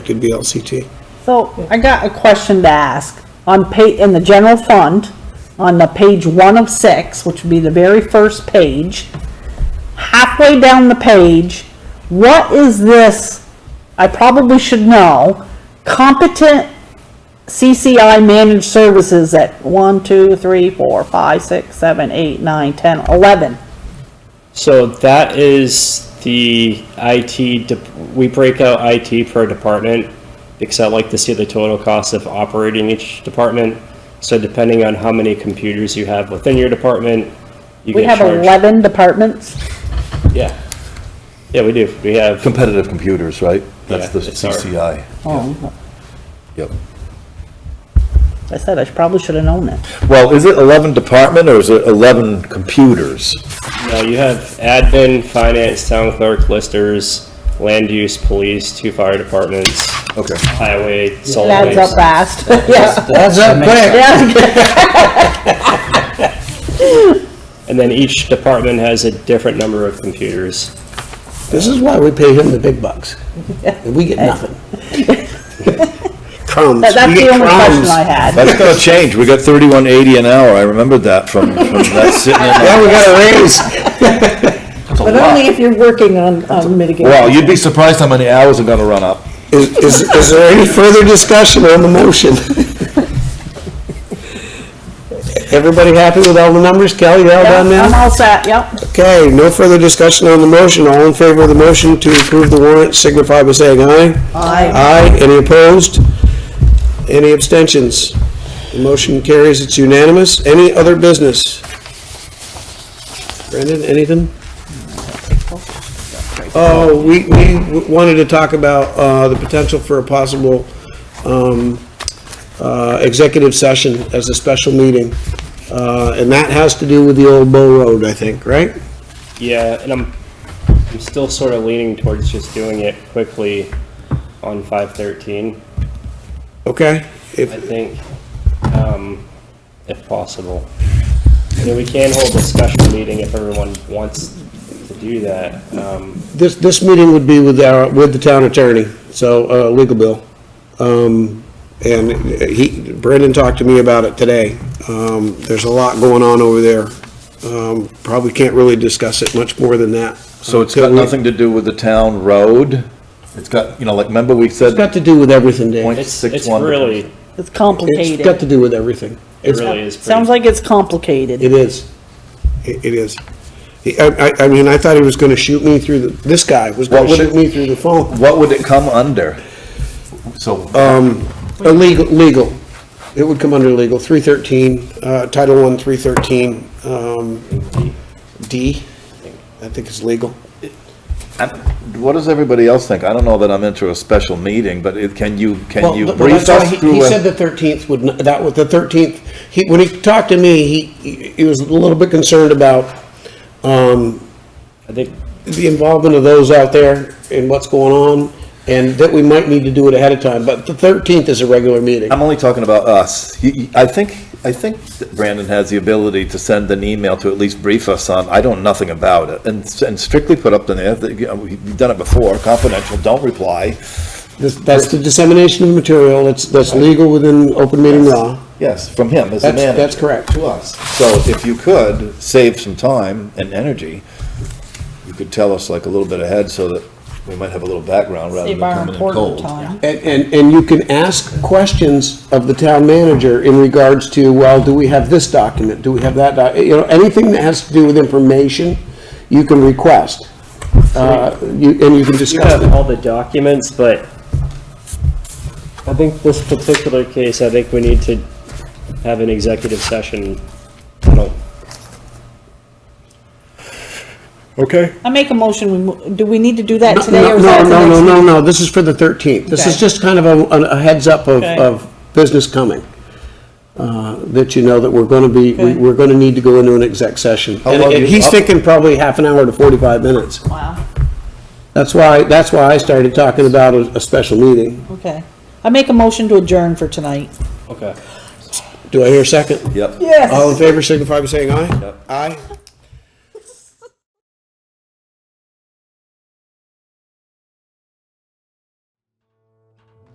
could be LCT. So I got a question to ask. On pa, in the general fund, on the page one of six, which would be the very first page, halfway down the page, what is this, I probably should know, competent CCI managed services at one, two, three, four, five, six, seven, eight, nine, ten, eleven? So that is the IT, de- we break out IT per department because I like to see the total cost of operating each department. So depending on how many computers you have within your department, you We get have charged. eleven departments? Yeah. Yeah, we do. We have, Competitive computers, right? That's Yeah, the it's our- CCI. Oh, Yep. I said I probably should have known that. Well, is it 11 department or is it 11 computers? no, you have admin, finance, town clerk, listers, land use, police, two fire departments, Okay. highway, solid That's up waste. fast, yeah. That's up quick. Yeah, And then each department has a different number of computers. This is why we pay him the big bucks. And we get nothing. Crumbs. that- that's We the get only question crumbs. I had. That's gonna change. We got 3180 an hour. I remembered that from, from that sitting in. Yeah, we got a raise. But only if you're working on, on mitigating. Wow, you'd be surprised how many hours are gonna run up. Is, is, is there any further discussion on the motion? Everybody happy with all the numbers? Kelly, you all done now? I'm all set, yep. Okay, no further discussion on the motion. All in favor of the motion to approve the warrant signify by saying aye. Aye. Aye. Any opposed? Any abstentions? The motion carries, it's unanimous. Any other business? Brendan, anything? Oh, we, we wanted to talk about, uh, the potential for a possible, um, uh, executive session as a special meeting. Uh, and that has to do with the old Bow Road, I think, right? Yeah, and I'm, I'm still sort of leaning towards just doing it quickly on five thirteen, Okay? If, I think, um, if possible. I mean, we can hold a special meeting if everyone wants to do that, um, This, this meeting would be with our, with the town attorney, so, uh, legal bill. Um, and he, Brendan talked to me about it today. Um, there's a lot going on over there. Um, probably can't really discuss it much more than that. So it's got Until we- nothing to do with the town road? It's got, you know, like, remember we It's said got to do with everything, Dave. point it's, six it's one? really, It's It's got complicated. to do with everything. it really is pretty. Sounds like it's complicated. It is. It it is. He- I, I, I mean, I thought he was gonna shoot me through the, this guy was gonna What would shoot it- me through the phone. What would it come under? So, Illegal, legal. It would come under legal, 313, uh, Title I, 313, um, D, I think is legal. I'm- what does everybody else think? I don't know that I'm into a special meeting, but it, can you, can you Well, brief that's why us he- through He a- said the 13th would, n- that was, the 13th, he, when he talked to me, he, he- he was a little bit concerned about, um, I think, the involvement of those out there and what's going on, and that we might need to do it ahead of time, but the 13th is a regular meeting. I'm only talking about us. You- you- I think, I think that Brandon has the ability to send an email to at least brief us on, I don't, nothing about it, and s- and strictly put up the, that, you know, we've done it before, confidential, don't reply. This- That's the dissemination of material, that's, that's legal within open meeting law. Yes, from him as the That's- manager. that's correct. To us. So if you could save some time and energy, you could tell us like a little bit ahead so that we might have a little background rather than Save our coming in important cold. time. And, and, and you can ask questions of the town manager in regards to, well, do we have this document, do we have that doc, you know, anything that has to do with information, you can request. Uh, you, and you can you discuss have it. all the documents, but I think this particular case, I think we need to have an executive session. I don't, Okay. I make a motion, we, mo- do we need to do that No, today or no, is that no, the no, next? no, no, no, this is for the thirteenth, this is Okay. just kind of a, a heads up of, Okay. of business coming. Uh, that you know that we're gonna be, we- Okay. we're gonna need to go into an exec session. How And long and you- he's thinking probably half an hour to forty-five minutes. Wow, That's why, that's why I started talking about a, a special meeting. okay. I make a motion to adjourn for tonight. okay. Do I hear a second? Yep. Yes. Oh, All in favor, signify by saying aye. Aye.